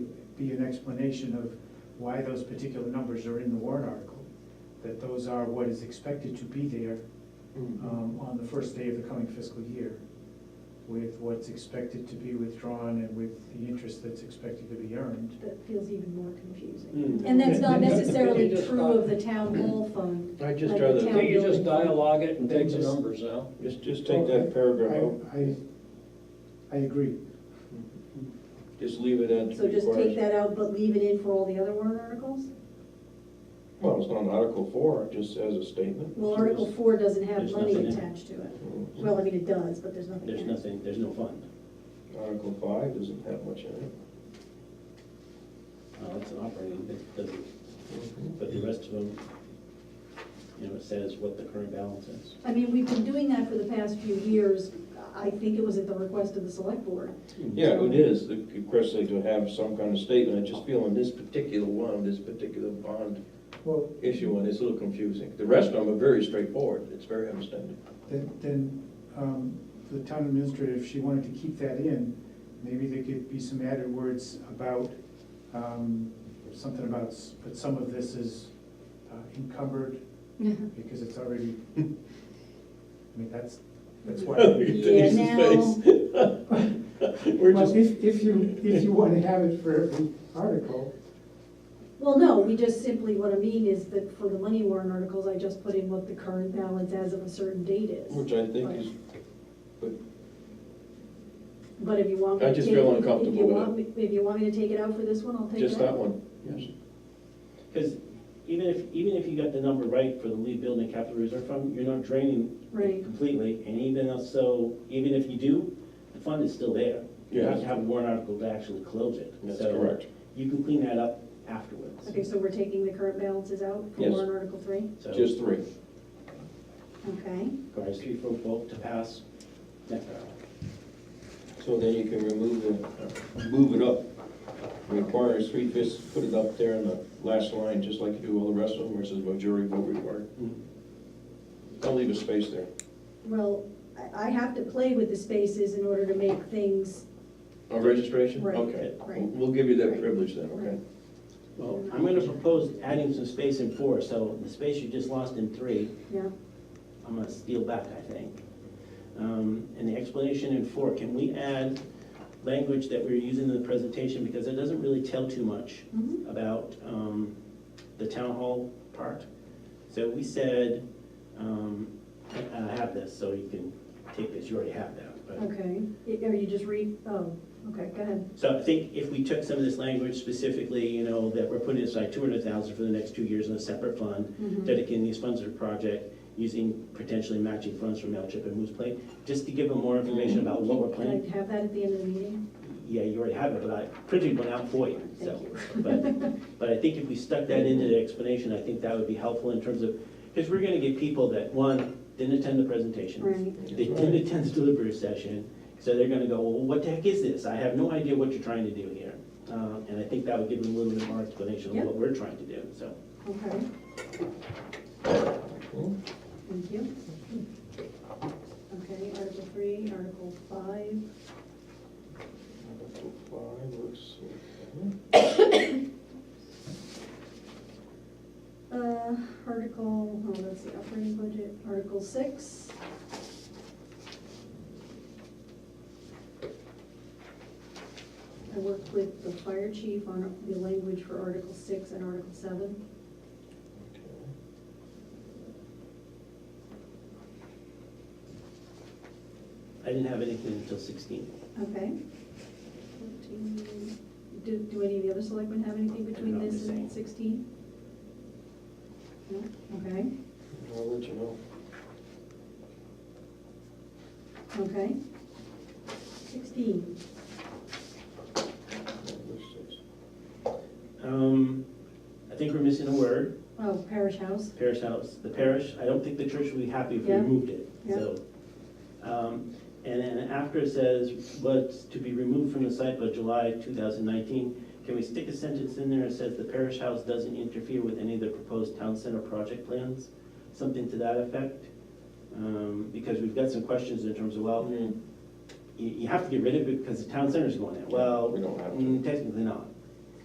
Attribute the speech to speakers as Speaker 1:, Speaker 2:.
Speaker 1: be an explanation of why those particular numbers are in the warrant article, that those are what is expected to be there
Speaker 2: Mm-hmm.
Speaker 1: um, on the first day of the coming fiscal year, with what's expected to be withdrawn and with the interest that's expected to be earned.
Speaker 3: That feels even more confusing.
Speaker 4: Mm.
Speaker 3: And that's not
Speaker 1: Yeah.
Speaker 3: necessarily
Speaker 4: You just
Speaker 3: true
Speaker 4: thought-
Speaker 3: of the town hall fund.
Speaker 4: I just
Speaker 3: like
Speaker 4: rather,
Speaker 3: the town
Speaker 4: think you just
Speaker 3: building fund.
Speaker 4: dialogue it and
Speaker 1: Then
Speaker 4: take the
Speaker 1: just-
Speaker 4: numbers out.
Speaker 2: Just, just take that paragraph out,
Speaker 1: I, I- I agree.
Speaker 2: just leave it at.
Speaker 3: So just
Speaker 2: requires-
Speaker 3: take that out, but leave it in for all the other warrant articles?
Speaker 2: Well, it's not Article four, it just as a statement.
Speaker 3: Well, Article four doesn't have
Speaker 5: There's
Speaker 3: money
Speaker 5: nothing in it.
Speaker 3: attached to it.
Speaker 2: Mm.
Speaker 3: Well, I mean, it does, but there's nothing.
Speaker 5: There's
Speaker 3: in it.
Speaker 5: nothing, there's no fund.
Speaker 2: Article five doesn't have much in it.
Speaker 5: Uh, That's an operating, that doesn't,
Speaker 2: Mm-hmm.
Speaker 5: but the rest of them, you know, it says what the current balance is.
Speaker 3: I mean, we've been doing that for the past few years. I think it was at the request of the select board.
Speaker 2: Yeah, it is, the request they to have some kind of statement, I just feel on this particular one, this particular bond
Speaker 1: Well,
Speaker 2: issue one, it's a little confusing. The rest of them are very straightforward, it's very understandable.
Speaker 1: then, then um, the town administrator, if she wanted to keep that in, maybe there could be some added words about, um, something about, s- but some of this is uh, encumbered because it's already, I mean, that's, that's why.
Speaker 2: Look at Denise's
Speaker 3: Yeah,
Speaker 2: face. We're
Speaker 1: Well,
Speaker 2: just,
Speaker 1: if, if you, if you want to have it for every article,
Speaker 3: Well, no, we just simply, what I mean is that for the money warrant articles, I just put in what the current balance as of a certain date is.
Speaker 2: which I think is, but
Speaker 3: But if you want me
Speaker 2: I
Speaker 3: to
Speaker 2: just
Speaker 3: take-
Speaker 2: feel
Speaker 3: if you
Speaker 2: uncomfortable with
Speaker 3: want me- If you want me to take it out for this one, I'll take it out.
Speaker 2: just that one, yes.
Speaker 5: Because even if, even if you got the number right for the lead building capital reserve fund, you're not draining
Speaker 3: Right.
Speaker 5: completely. And even so, even if you do, the fund is still there. You have to
Speaker 2: Yes.
Speaker 5: have a warrant article to actually close it.
Speaker 2: That's
Speaker 5: So
Speaker 2: correct.
Speaker 5: You can clean that up afterwards.
Speaker 3: Okay, so we're taking the current balances out for
Speaker 2: Yes.
Speaker 3: warrant article three?
Speaker 5: So
Speaker 2: Just three.
Speaker 3: Okay.
Speaker 5: requires three for vote to pass next article.
Speaker 2: So then you can remove the, move it up. Requires three fifths, put it up there in the last line, just like you do all the rest of them, where it says majority vote required. Don't leave a space there.
Speaker 3: Well, I, I have to play with the spaces in order to make things,
Speaker 2: Oh, registration?
Speaker 3: Right,
Speaker 2: Okay.
Speaker 3: right.
Speaker 2: We'll- We'll give you that
Speaker 3: Right.
Speaker 2: privilege then, okay?
Speaker 5: Well, I'm gonna propose adding some space in four, so the space you just lost in three,
Speaker 3: yeah,
Speaker 5: I'm gonna steal back, I think. Um, And the explanation in four, can we add language that we're using in the presentation, because it doesn't really tell too much
Speaker 3: Mhm.
Speaker 5: about um, the town hall part. So we said, um, and I have this, so you can take this, you already have that, but.
Speaker 3: okay. Y- Are you just read, oh, okay, go ahead.
Speaker 5: So I think if we took some of this language specifically, you know, that we're putting aside two hundred thousand for the next two years in a separate fund,
Speaker 3: Mhm.
Speaker 5: dedicating these funds to the project, using potentially matching funds from Mailchimp and Moose Plate, just to give them more information about what we're
Speaker 3: Can I
Speaker 5: planning.
Speaker 3: have that at the end of the meeting?
Speaker 5: Yeah, you already have it, but I printed one out for you, so. But, but I think if we stuck that into the explanation, I think that would be helpful in terms of, because we're gonna get people that, one, didn't attend the presentation.
Speaker 3: Right.
Speaker 5: They didn't attend the delivery session, so they're gonna go, well, what the heck is this? I have no idea what you're trying to do here. Uh, And I think that would give them a little bit more explanation of what we're trying to do, so.
Speaker 3: Okay,
Speaker 2: Hmm?
Speaker 3: thank you. Okay, Article three, Article five,
Speaker 2: Article five, let's see.
Speaker 3: uh, Article, oh, that's the operating budget, Article six. I worked with the fire chief on the language for Article six and Article seven.
Speaker 2: Okay.
Speaker 5: I didn't have anything until sixteen.
Speaker 3: Okay. Fourteen. Do, do any of the other selectmen have anything between
Speaker 5: No, I'm
Speaker 3: this
Speaker 5: just saying.
Speaker 3: and sixteen? No, okay,
Speaker 2: I'll let you know.
Speaker 3: okay. Sixteen,
Speaker 5: Um, I think we're missing a word,
Speaker 3: oh, parish house,
Speaker 5: parish house, the parish, I don't think the church would be happy if we
Speaker 3: Yeah.
Speaker 5: removed it,
Speaker 3: Yeah.
Speaker 5: so. Um, And then after it says, was to be removed from the site by July two thousand nineteen, can we stick a sentence in there that says the parish house doesn't interfere with any of the proposed town center project plans? Something to that effect? Um, Because we've got some questions in terms of, well,
Speaker 2: Hmm.
Speaker 5: you, you have to get rid of it because the town center's going in. Well,
Speaker 2: We don't have to.
Speaker 5: mm, technically not.